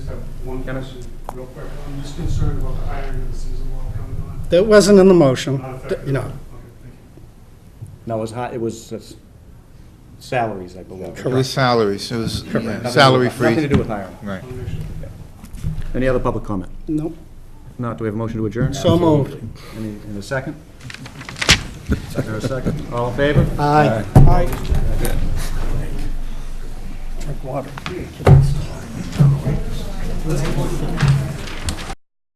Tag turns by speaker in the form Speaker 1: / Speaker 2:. Speaker 1: have one
Speaker 2: Can I-
Speaker 1: question, real quick. I'm just concerned about the hiring of the seasonal law coming on.
Speaker 3: That wasn't in the motion,
Speaker 1: Not
Speaker 3: that-
Speaker 1: effective.
Speaker 3: you know.
Speaker 1: Okay, thank you.
Speaker 4: No, it was hi, it was uh, s- salaries, I believe.
Speaker 5: It was salaries, it was
Speaker 4: Nothing to do with-
Speaker 5: salary
Speaker 4: Nothing to
Speaker 5: freeze.
Speaker 4: do with hiring.
Speaker 5: Right.
Speaker 1: I wanna make sure.
Speaker 4: Any other public comment?
Speaker 3: Nope.
Speaker 4: If not, do we have a motion to adjourn?
Speaker 3: So moved.
Speaker 4: Any, in a second? Is there a second? All in favor?
Speaker 3: Aye.